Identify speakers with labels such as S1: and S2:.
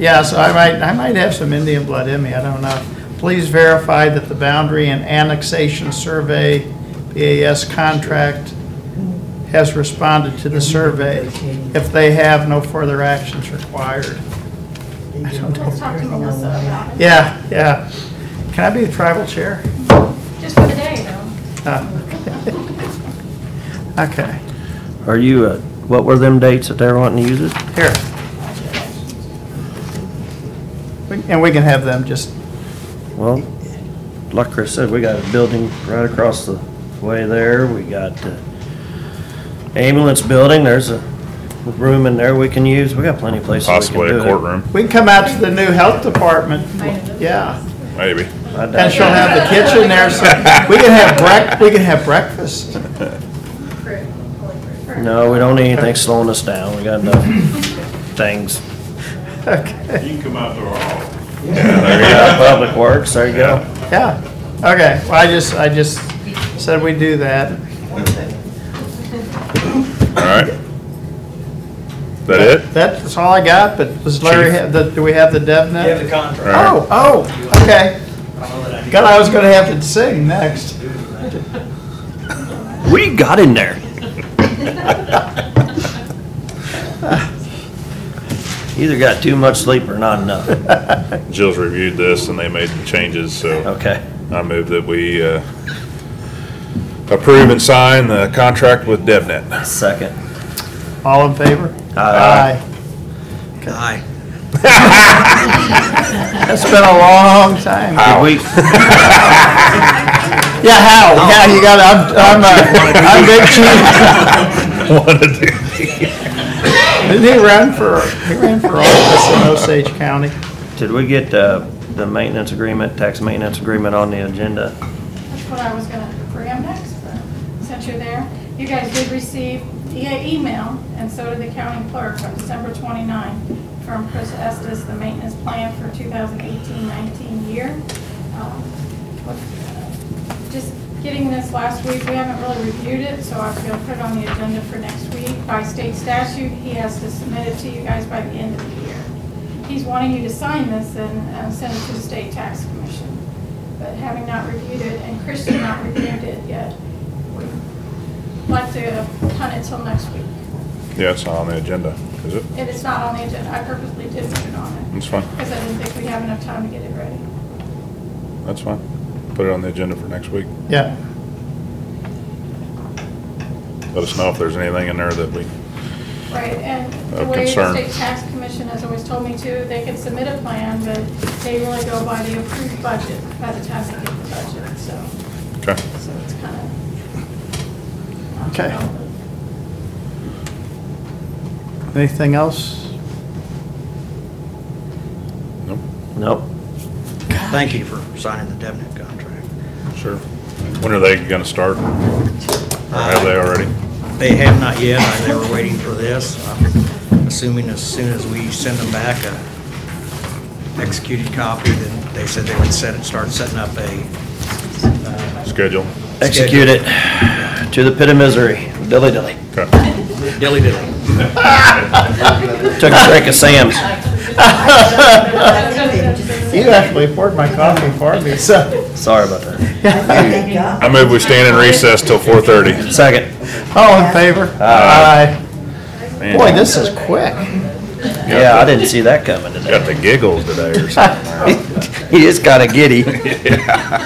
S1: Yeah, so I might, I might have some Indian blood in me, I don't know. Please verify that the boundary and annexation survey, BAS contract, has responded to the survey. If they have, no further actions required. I don't know.
S2: Let's talk to Melissa about it,
S1: Yeah, yeah. Can I be the tribal chair?
S2: just for the day, though.
S1: Uh, Okay,
S3: Are you, uh, what were them dates that they were wanting to use it?
S1: here. We- And we can have them just,
S3: Well, like Chris said, we got a building right across the way there. We got the ambulance building. There's a room in there we can use. We got plenty of places we can
S4: Possibly
S3: do
S4: a
S3: it.
S4: courtroom,
S1: we can come out to the new health department. Yeah.
S4: maybe.
S3: I doubt
S1: And she'll
S3: it.
S1: have the kitchen there, so we can have break, we can have breakfast.
S3: No, we don't need anything slowing us down. We got enough things.
S1: Okay,
S4: You can come out to our hall.
S3: We got Public Works, there you go.
S1: yeah, okay, well, I just, I just said we do that.
S4: All right. Is that it?
S1: That's all I got, but does Larry, have the do we have the dev
S5: You have the
S1: net?
S4: All
S5: contract.
S4: right.
S1: Oh, oh, okay. God, I was gonna have to sing next.
S3: What do you got in there? Either got too much sleep or not enough.
S4: Jill's reviewed this and they made the changes, so
S3: Okay.
S4: I move that we uh, approve and sign the contract with DevNet.
S3: Second.
S1: All in favor? Uh,
S3: Aye. Aye.
S1: That's been a long time.
S3: Did we,
S1: Yeah, how,
S4: Oh.
S1: yeah, you got, I'm, I'm, uh, I'm Big Chief.
S4: Wanna do-
S1: Didn't he run for, he ran for office in Osage County?
S3: did we get uh, the maintenance agreement, tax maintenance agreement on the agenda?
S2: That's what I was gonna bring next, but since you're there, you guys did receive the email, and so did the county clerk on December 29 from Chris Estes, the maintenance plan for 2018-19 year. Um, with, uh, Just getting this last week, we haven't really reviewed it, so I was gonna put it on the agenda for next week. By state statute, he has to submit it to you guys by the end of the year. He's wanting you to sign this and uh, send it to the state tax commission but having not reviewed it, and Christian not reviewed it yet, we'd like to punt it till next week.
S4: Yeah, it's not on the agenda, is it?
S2: It is not on the agenda, I purposely did put it on it,
S4: That's fine,
S2: because I didn't think we'd have enough time to get it ready.
S4: that's fine. Put it on the agenda for next week.
S1: Yeah,
S4: Let us know if there's anything in there that we,
S2: Right, and the
S4: Of
S2: way the
S4: concern.
S2: state tax commission has always told me to, they can submit a plan, but they really go by the approved budget by the time they get the budget, so,
S4: okay.
S2: so it's kind of.
S1: Okay. anything else?
S4: Nope,
S3: Nope.
S5: Thank you for signing the DevNet contract.
S4: sure. When are they gonna start? Or have they already?
S5: They have not yet, I- they were waiting for this. I'm Assuming as soon as we send them back a executed copy, then they said they would set it, start setting up a,
S4: Schedule?
S3: Execute it to the pit of misery. Dilly dilly.
S4: Okay.
S5: dilly dilly.
S3: Took a drink of Sam's.
S1: You actually poured my coffee for me, so.
S3: Sorry about that.
S4: I move we stand in recess till four thirty.
S3: Second.
S1: All in favor?
S4: Aye.
S1: Aye. Boy, this is quick.
S3: Yeah, I didn't see that coming today.
S4: Got the giggles today or something.
S3: He just got a giddy.